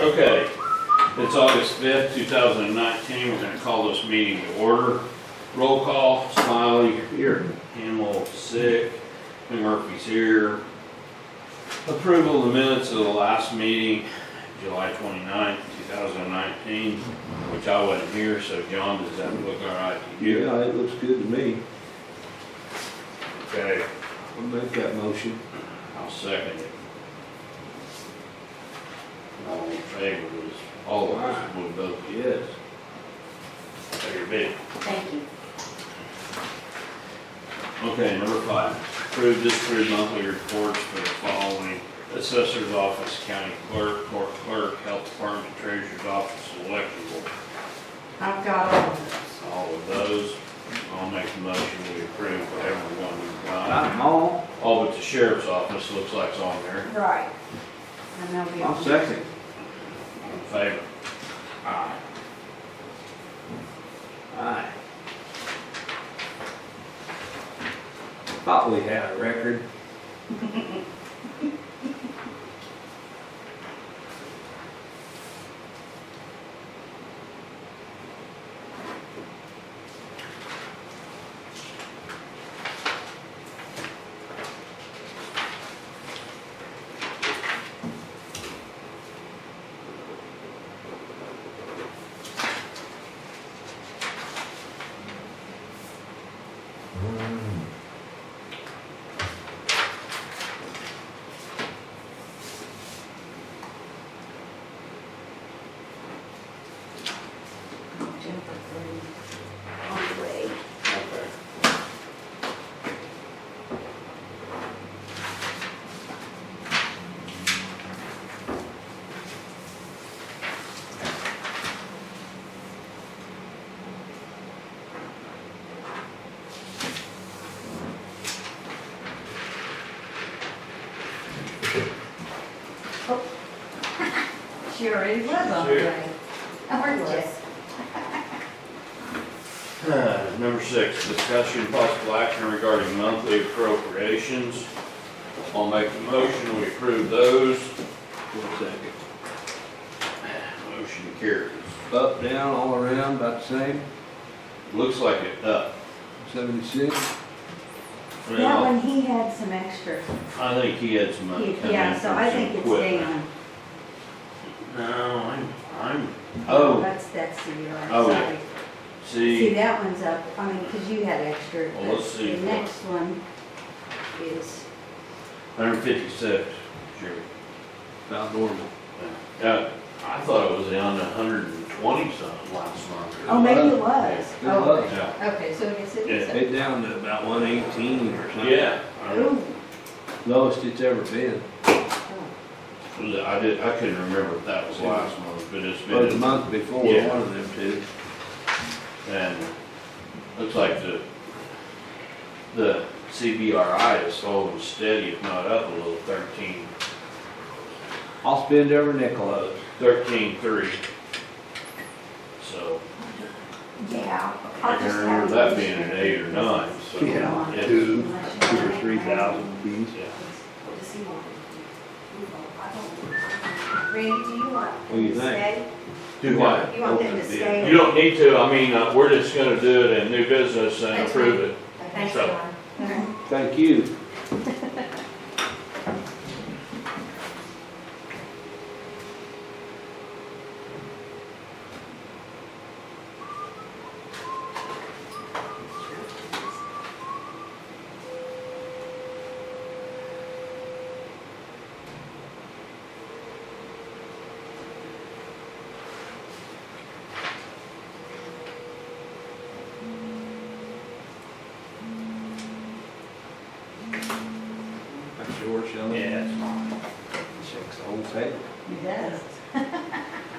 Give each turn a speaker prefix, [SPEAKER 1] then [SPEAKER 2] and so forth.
[SPEAKER 1] Okay, it's August 5th, 2019, we're gonna call this meeting to order. Roll call, Smiley. Here. Hamel, sick, Murphy's here. Approval of the minutes of the last meeting, July 29th, 2019, which I wasn't here, so John, does that look all right to you?
[SPEAKER 2] Yeah, it looks good to me.
[SPEAKER 1] Okay,
[SPEAKER 2] I'll make that motion.
[SPEAKER 1] I'll second it. All in favor was, all of us would vote
[SPEAKER 2] Yes.
[SPEAKER 1] yes, very big.
[SPEAKER 3] Thank you.
[SPEAKER 1] Okay, number five, approve, disapprove monthly reports for the following assessor's office, county clerk, court clerk, health department, treasurer's office, election board.
[SPEAKER 3] I've got all of
[SPEAKER 1] All of those, I'll make the motion, we approve whatever one we've got.
[SPEAKER 2] I'm on.
[SPEAKER 1] All but the sheriff's office, looks like it's on there,
[SPEAKER 3] them. Right. And they'll be
[SPEAKER 2] I'll
[SPEAKER 3] on.
[SPEAKER 2] second.
[SPEAKER 1] in favor. Aye.
[SPEAKER 2] Aye. Thought we had a record.
[SPEAKER 3] Jennifer, um, On the way.
[SPEAKER 1] Okay.
[SPEAKER 3] She already was on the
[SPEAKER 1] Sure.
[SPEAKER 3] way. How are you?
[SPEAKER 1] Uh, Number six, discussion possible action regarding monthly appropriations. I'll make the motion, we approve those.
[SPEAKER 2] One second.
[SPEAKER 1] Motion carries.
[SPEAKER 2] Up, down, all around, about the same.
[SPEAKER 1] Looks like it up.
[SPEAKER 2] Seventy-six.
[SPEAKER 3] That one, he had some extra.
[SPEAKER 1] I think he had some money
[SPEAKER 3] He-
[SPEAKER 1] coming in
[SPEAKER 3] Yeah,
[SPEAKER 1] from
[SPEAKER 3] so I
[SPEAKER 1] some
[SPEAKER 3] think it's
[SPEAKER 1] equipment.
[SPEAKER 3] down.
[SPEAKER 1] No, I'm, I'm, oh,
[SPEAKER 3] That's, that's the year, I'm
[SPEAKER 1] Oh, yeah.
[SPEAKER 3] sorry. See,
[SPEAKER 1] see,
[SPEAKER 3] that one's up, I mean, because you had extra.
[SPEAKER 1] Well, let's
[SPEAKER 3] but
[SPEAKER 1] see
[SPEAKER 3] The
[SPEAKER 1] what-
[SPEAKER 3] next one is,
[SPEAKER 1] hundred fifty-six, sure.
[SPEAKER 2] About normal.
[SPEAKER 1] Uh, I thought it was down to hundred and twenty something last month.
[SPEAKER 3] oh, maybe it was.
[SPEAKER 2] It
[SPEAKER 3] Oh,
[SPEAKER 2] was.
[SPEAKER 1] Yeah.
[SPEAKER 3] Okay, so I guess it is. Oh,
[SPEAKER 1] Yeah.
[SPEAKER 3] up.
[SPEAKER 2] It down to about one eighteen or something.
[SPEAKER 1] Yeah, I
[SPEAKER 3] Ooh.
[SPEAKER 2] Lowest it's ever been.
[SPEAKER 3] oh.
[SPEAKER 1] Was it- I did, I couldn't remember if that was last month, but it's
[SPEAKER 2] Or the
[SPEAKER 1] been,
[SPEAKER 2] month before,
[SPEAKER 1] Yeah.
[SPEAKER 2] one of them two.
[SPEAKER 1] and looks like the, the CBRI is holding steady, if not up a little, thirteen,
[SPEAKER 2] I'll spend every nickel of it.
[SPEAKER 1] thirteen three. So,
[SPEAKER 3] Yeah.
[SPEAKER 1] I can remember that being an eight or nine, so.
[SPEAKER 2] Yeah.
[SPEAKER 1] it's-
[SPEAKER 2] Two, two or three thousand piece.
[SPEAKER 1] yeah.
[SPEAKER 3] Randy, do you want
[SPEAKER 2] What do
[SPEAKER 3] them
[SPEAKER 2] you
[SPEAKER 3] to
[SPEAKER 2] think?
[SPEAKER 3] stay?
[SPEAKER 1] Do what?
[SPEAKER 3] You want them to
[SPEAKER 2] Open the
[SPEAKER 3] stay?
[SPEAKER 1] You don't need to, I mean, uh, we're just gonna do it in new business and
[SPEAKER 3] That's
[SPEAKER 1] approve it.
[SPEAKER 3] Thanks,
[SPEAKER 1] So-
[SPEAKER 3] John. Okay.
[SPEAKER 2] Thank you. That's yours, Shelley?
[SPEAKER 1] it's fine.
[SPEAKER 2] Checks the whole table.
[SPEAKER 3] He does.